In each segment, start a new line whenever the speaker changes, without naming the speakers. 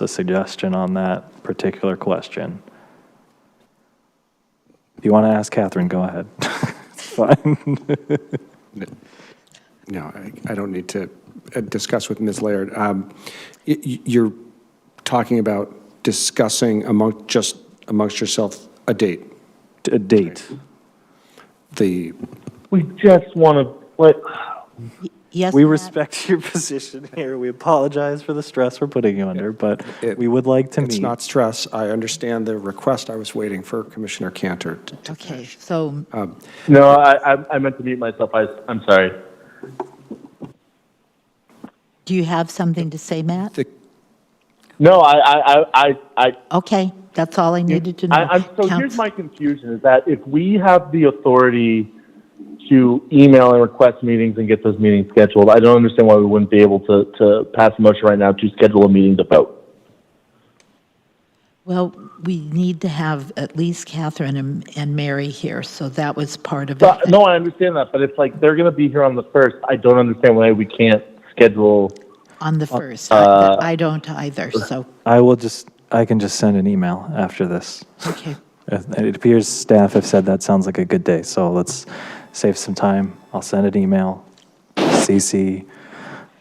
It's a suggestion on that particular question. If you want to ask Catherine, go ahead. It's fine.
No, I- I don't need to uh, discuss with Ms. Laird. Um, y- y- You're talking about discussing among, just amongst yourself, a date,
D- A date.
the,
We just want to, what,
Yes,
We
Matt?
respect your position here. We apologize for the stress we're putting you under, but
It-
we would like to
it's
meet.
not stress, I understand the request, I was waiting for Commissioner Cantor. to- to-
Okay, so,
no, I, I- I meant to mute myself, I, I'm sorry.
do you have something to say, Matt?
The
No, I, I, I, I, I,
Okay, that's all I needed to know.
I- I'm, so here's
Counsel-
my confusion, is that if we have the authority to email and request meetings and get those meetings scheduled, I don't understand why we wouldn't be able to, to pass a motion right now to schedule a meeting to vote.
Well, we need to have at least Catherine and, and Mary here, so that was part of
So-
it.
No, I understand that, but it's like, they're gonna be here on the first, I don't understand why we can't schedule,
On the first,
Uh,
I I don't either, so,
I will just, I can just send an email after this.
okay.
Uh, It appears staff have said that sounds like a good day, so let's save some time. I'll send an email, CC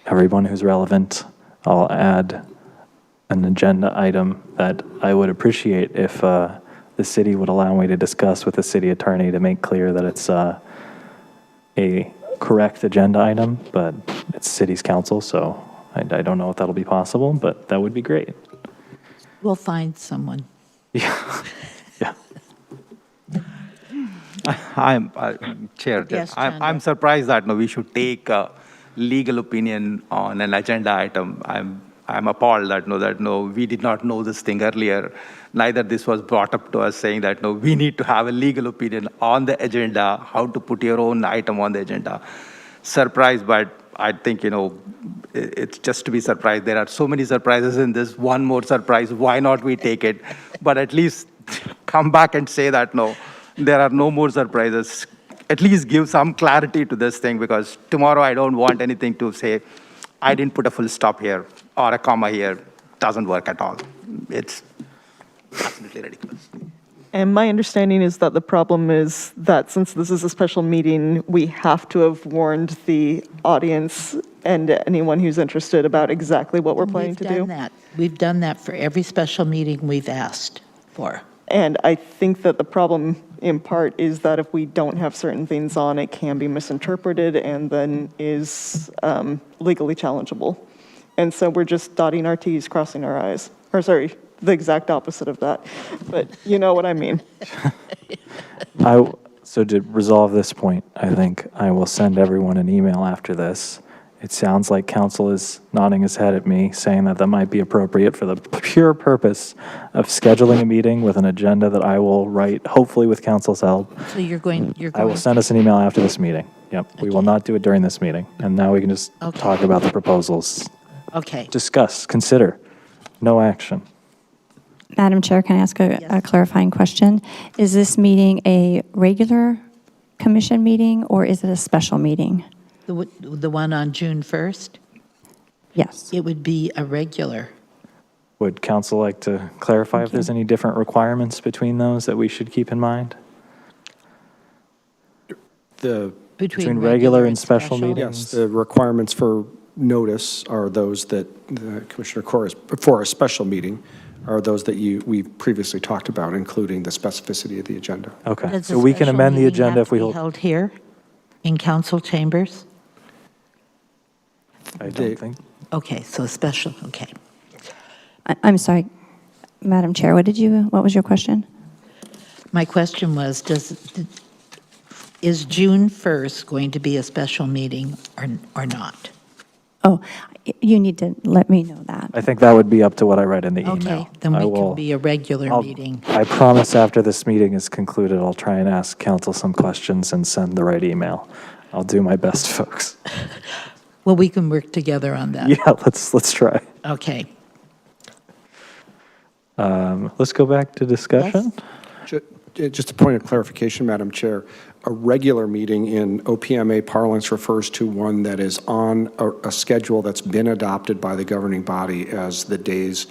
everyone who's relevant. I'll add an agenda item that I would appreciate if uh, the city would allow me to discuss with the city attorney to make clear that it's uh, a correct agenda item, but it's city's council, so I I don't know if that'll be possible, but that would be great.
We'll find someone.
Yeah.
I'm, I'm- Chair,
Yes,
I'm, I'm
Chandra.
surprised that no, we should take a legal opinion on an agenda item. I'm, I'm appalled that no, that no, we did not know this thing earlier. Neither this was brought up to us saying that no, we need to have a legal opinion on the agenda, how to put your own item on the agenda. Surprised, but I think, you know, i- it's just to be surprised. There are so many surprises in this. One more surprise, why not we take it? But at least come back and say that no, there are no more surprises. At least give some clarity to this thing because tomorrow I don't want anything to say, I didn't put a full stop here or a comma here. Doesn't work at all. It's absolutely ridiculous.
And my understanding is that the problem is that since this is a special meeting, we have to have warned the audience and anyone who's interested about exactly what we're planning
We've
to
done
do.
that. We've done that for every special meeting we've asked for.
And I think that the problem in part is that if we don't have certain things on, it can be misinterpreted and then is um, legally challengeable. And so we're just dotting our Ts, crossing our Is, or sorry, the exact opposite of that. But you know what I mean.
I, so to resolve this point, I think I will send everyone an email after this. It sounds like council is nodding his head at me, saying that that might be appropriate for the pure purpose of scheduling a meeting with an agenda that I will write, hopefully with council's help.
So you're going, you're
Mm, I
going.
will send us an email after this meeting. Yep, we will not do it during this meeting. And now we can just
Okay.
talk about the proposals.
Okay,
Discuss, consider, no action.
Madam Chair, can I ask a a clarifying question? Is this meeting a regular commission meeting, or is it a special meeting?
the, w- the one on June 1st,
Yes.
it would be a regular.
Would council like to clarify if there's any different requirements between those that we should keep in mind?
The,
Between regular and special meeting?
yes, the requirements for notice are those that uh, Commissioner Corr, is- for a special meeting, are those that you, we previously talked about, including the specificity of the agenda.
Okay,
Does
so
the
we can
special
amend the
meeting
agenda
have
if we
to be
hold.
Held here in council chambers?
I
The-
don't think,
Okay, so special, okay.
I- I'm sorry, Madam Chair, what did you, what was your question?
My question was, does, is June 1st going to be a special meeting or, or not?
Oh, y- you need to let me know that.
I think that would be up to what I write in the email.
Okay, then
I
we
will-
can be a regular
I'll-
meeting.
I promise after this meeting is concluded, I'll try and ask council some questions and send the right email. I'll do my best, folks.
Well, we can work together on that.
Yeah, let's, let's try.
Okay.
Um, Let's go back to discussion.
Ju- uh, Just a point of clarification, Madam Chair. A regular meeting in OPMA parlance refers to one that is on a, a schedule that's been adopted by the governing body as the days